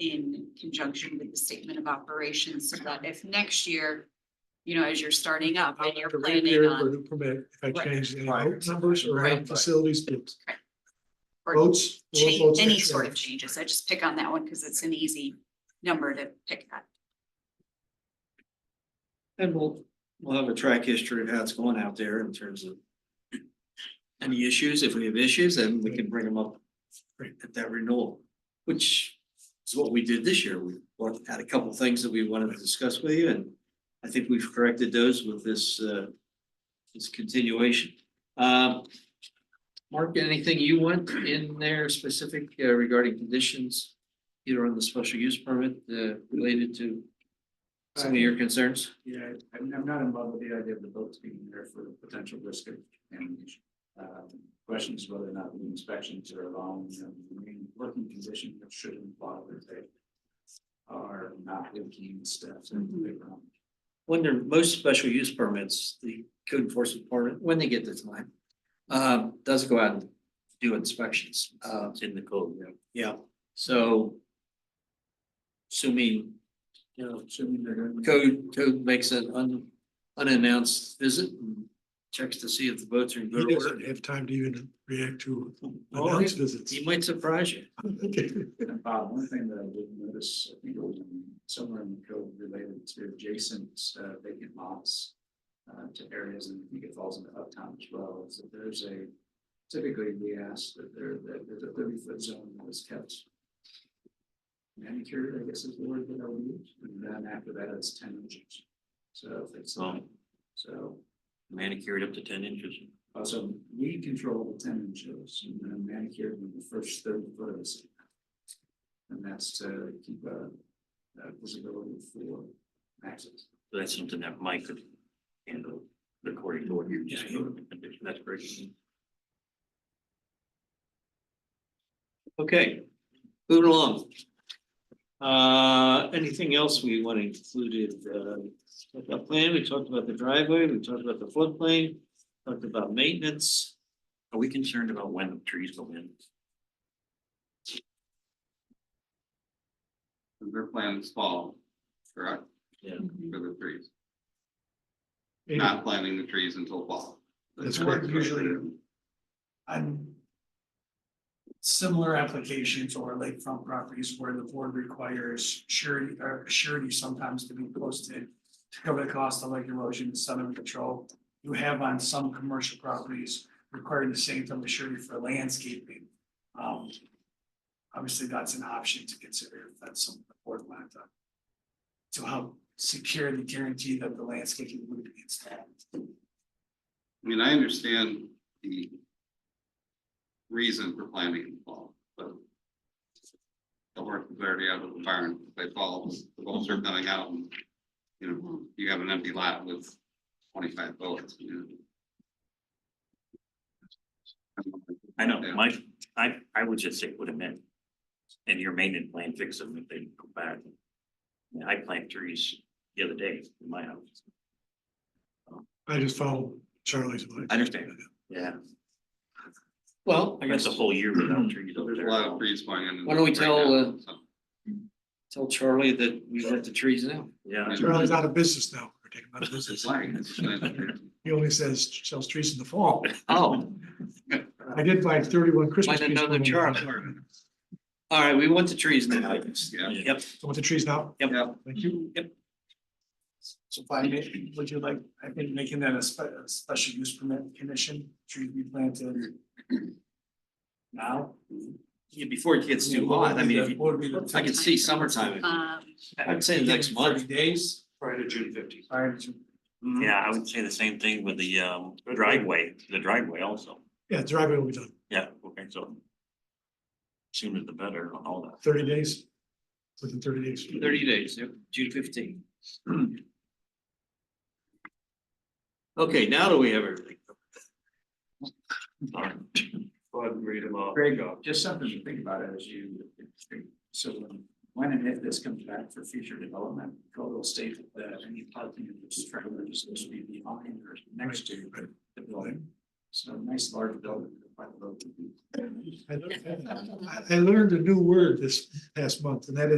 in conjunction with the statement of operations so that if next year, you know, as you're starting up I and would you're have to planning reappear for on, new permit if I Right. change any Right. road numbers or Right. add facilities. built. or Boats. all change, boats any except- sort of changes. I just pick on that one because it's an easy number to pick at. And we'll, we'll have a track history of how it's going out there in terms of any issues. If we have issues, then we can bring them up at that renewal, which is what we did this year. We brought- had a couple of things that we wanted to discuss with you, and I think we've corrected those with this, uh, this continuation. Um, Mark, anything you want in there specific uh, regarding conditions, either on the special use permit, uh, related to some of your concerns? Uh, Yeah, I'm, I'm not involved with the idea of the boats being there for the potential risk of damage. Um, Question is whether or not the inspections are allowing them to remain working condition that should imply that they are not leaking steps and Mhm. playground. Mm-hmm. When they're, most special use permits, the code enforcement department, when they get the time, uh, does go out and do inspections, uh, in the code, yeah. yeah, so assuming You know, assuming they're going to. code, code makes an un, unannounced visit and checks to see if the boats are in He Oh, good order. doesn't have time to even react to Well, announced visits. Oh, He might surprise you. Okay. And Bob, one thing that I did notice, I think it was in- somewhere in the code related to adjacent uh, vacant lots. Uh, to areas, and I think it falls into uptown as well, is that there's a, typically we ask that there, that there's a thirty foot zone that is kept. Manicured, I guess is the word that I would use, and then after that it's ten inches. So if it's, Oh. so, Manicured up to ten inches. also we control the ten inches, and then manicured in the first thirty foot of the sand. And that's to keep a, uh visibility for access. That's something that Mike could handle according to what you just That's great. Okay, moving along. Uh, anything else we want to include? Uh, the plan, we talked about the driveway, we talked about the floodplain, talked about maintenance. Are we concerned about when the trees go in? Their plan is fall, correct, Mhm. for the trees, not planting the trees until fall. That's correct. on similar applications or lakefront properties where the board requires surety, or surety sometimes to be posted to cover the cost of lake erosion and sediment control. You have on some commercial properties requiring the same type of surety for landscaping. Um, obviously, that's an option to consider if that's something the board wanted to to help secure the guarantee that the landscaping would be installed. I mean, I understand the reason for planting in fall, but the work is already out of the barn, they fall, the bolts are coming out, and, you know, you have an empty lot with twenty-five bullets, you know. I know, Yeah. my, I, I would just say put them in. And your maintenance plan, fix them if they go bad. I mean, I planted trees the other day in my house. I just follow Charlie's advice. I understand. Yeah, Well, I I got guess the whole year without trees over There's a there. lot of trees going in. Why don't we right tell, now, uh, so. tell Charlie that we let the trees now. Yeah, Charlie's out of business now. We're taking him out of business. He only says sells trees in the fall. Oh. I did buy thirty-one Christmas Find trees. another from him. Charlie. All right, we want the trees now. Yeah. Yep, So with the trees now, yep. thank you. So if I may, would you like, I think making that a spe- a special use permit condition, trees be planted. Now. Yeah, before it gets too hot, I mean, if you- Would be the- I could see summertime, Um, I'd say next month. Thirty days Prior to June fifteenth. Mm-hmm. prior to. yeah, I would say the same thing with the um driveway, the driveway also. Yeah, driveway will be done. Yeah, okay, so. Sooner the better on all that. Thirty days. Within thirty days. Thirty days, yep, June fifteenth. Okay, now do we have everything? All right. Greg, just something to think about as you, so when- when and if this comes back for future development, code will state that any parking of this trailer is supposed to be behind or next to the building. So a nice large building. by the road would be- I learned- I I learned a new word this past month and that is